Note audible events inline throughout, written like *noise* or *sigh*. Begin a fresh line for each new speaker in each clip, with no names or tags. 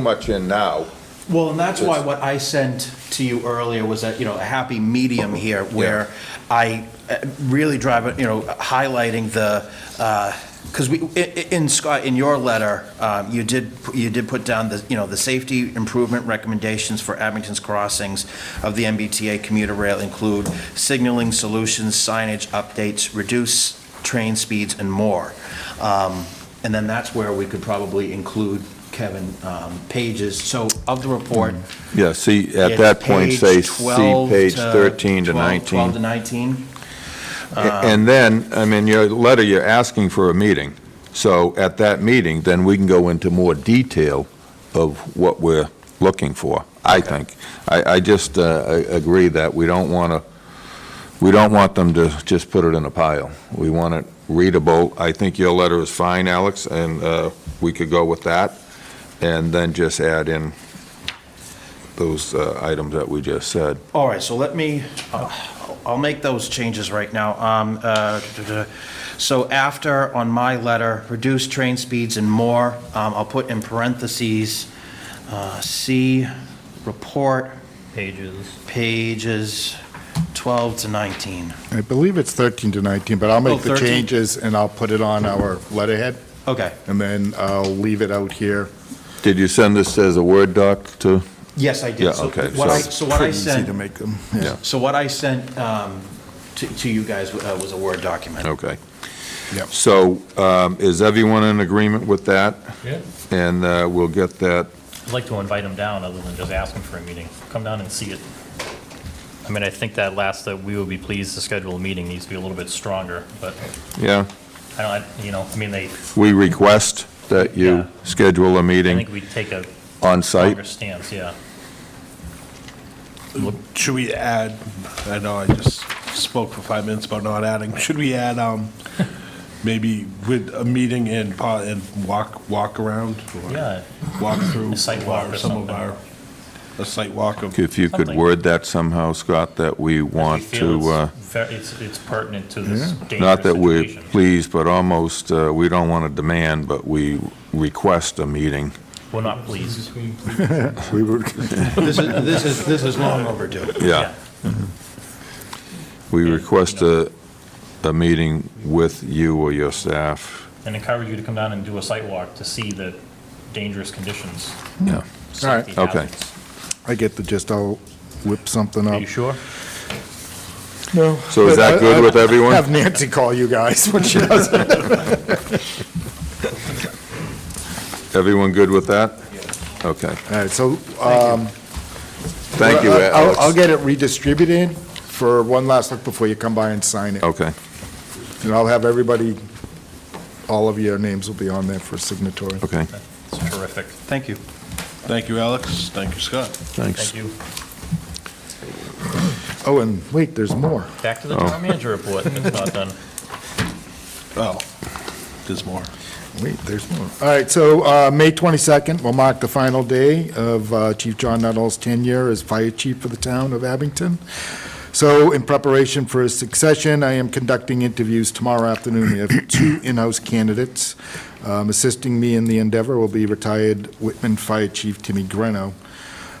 much in now.
Well, and that's why what I sent to you earlier was that, you know, a happy medium here where I uh, really drive, it, you know, highlighting the, because we, i- i- in Scott, in your letter, um, you did, you did put down the, you know, the safety improvement recommendations for Abington's crossings of the MBTA commuter rail include signaling solutions, signage updates, reduce train speeds and more. Um, And then that's where we could probably include Kevin um, pages, so of the report.
Yeah, see, at
it's
that point,
page
say, see
12
page
to
13 to
12 12 to
19.
19,
A- And then, I mean, your letter, you're asking for a meeting. So at that meeting, then we can go into more detail of what we're looking for, I think. I, I just uh, a- agree that we don't want to, we don't want them to just put it in a pile. We want it readable. I think your letter is fine, Alex, and uh, we could go with that, and then just add in those uh, items that we just said.
All right, so let me, I'll I'll make those changes right now. Um, uh, So after, on my letter, reduce train speeds and more, um, I'll put in parentheses, uh, see report
pages.
pages 12 to 19.
I believe it's 13 to 19, but I'll
Oh,
make the
13.
changes and I'll put it on our letterhead,
Okay,
and then I'll leave it out here.
Did you send this as a Word doc to?
yes, I did.
Yeah,
So
okay,
what I-
so-
So what I
Pretty easy
sent,
to make them, yeah.
Yeah.
so what I sent um, to to you guys uh, was a Word document.
Okay.
Yep.
So um, is everyone in agreement with that?
Yeah.
And uh, we'll get that,
I'd like to invite him down, other than just ask him for a meeting. Come down and see it. I mean, I think that last, that we would be pleased to schedule a meeting needs to be a little bit stronger, but
yeah,
I don't, I- you know, I mean, they,
we request that
Yeah.
you schedule a
I
meeting
think we take a
on site.
longer stance, yeah.
Should we add, I know I just spoke for five minutes about not adding, should we add, um, maybe with a meeting and, po- and walk, walk around? or
Yeah.
Walk through.
A site walk
our-
or
Some of
something.
our, a site walk of,
If you could
Something.
word that somehow, Scott, that we want
We feel
to,
it's
uh,
ver- It's, it's pertinent to this
not
dangerous
that we're
situation.
pleased, but almost, uh, we don't want to demand, but we request a meeting.
We're not pleased.
We would- *laughs*
This is, this is, this is long overdue.
Yeah. We
Yeah,
request
you know.
a, a meeting with you or your staff.
And encourage you to come down and do a site walk to see the dangerous conditions.
Yeah.
right,
safety
okay.
hazards.
I get the gist, I'll whip something
Are
up.
you sure?
So is that good with everyone?
Have Nancy call you guys *laughs* when she does it.
Everyone good with that? Okay.
All right, so
Thank you,
I'll- I'll- I'll
Alex.
get it redistributed for one last look before you come by and sign it.
Okay.
And I'll have everybody, all of your names will be on there for signatory.
Okay,
It's terrific.
Thank you.
thank you, Alex, thank you, Scott.
thanks.
Thank you.
Oh, and wait, there's more.
Back to the
Oh.
town manager report. It's not done.
Oh, there's more.
Wait, there's more. All right, so uh, May 22nd will mark the final day of uh, Chief John Nuttall's tenure as fire chief for the town of Abington. So in preparation for his succession, I am conducting interviews tomorrow afternoon. We have two in-house candidates. Um, Assisting me in the endeavor will be retired Whitman Fire Chief Timmy Greno.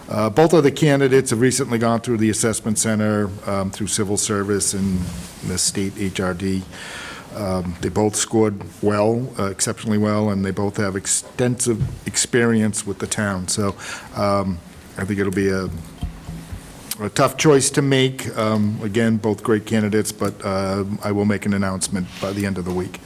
Uh, Both of the candidates have recently gone through the assessment center, um, through civil service and the state HRD. Um, They both scored well, uh, exceptionally well, and they both have extensive experience with the town. So um, I think it'll be a a tough choice to make. Um, Again, both great candidates, but uh, I will make an announcement by the end of the week.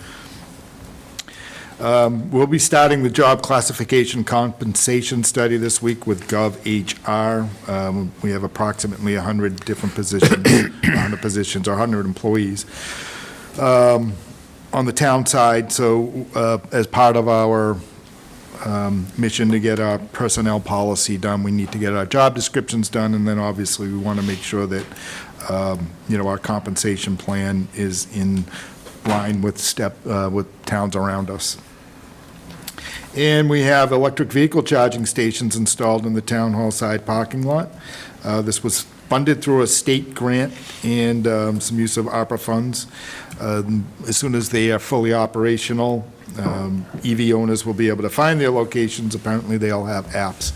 Um, We'll be starting the job classification compensation study this week with GovHR. Um, We have approximately 100 different positions, *coughs* 100 positions, or 100 employees on the town side, so uh, as part of our um, mission to get our personnel policy done, we need to get our job descriptions done, and then obviously we want to make sure that, um, you know, our compensation plan is in line with step, uh, with towns around us. And we have electric vehicle charging stations installed in the town hall side parking lot. Uh, This was funded through a state grant and um, some use of ARPA funds. Um, As soon as they are fully E operational, um, EV owners will be able to find their locations. Apparently, they all have apps.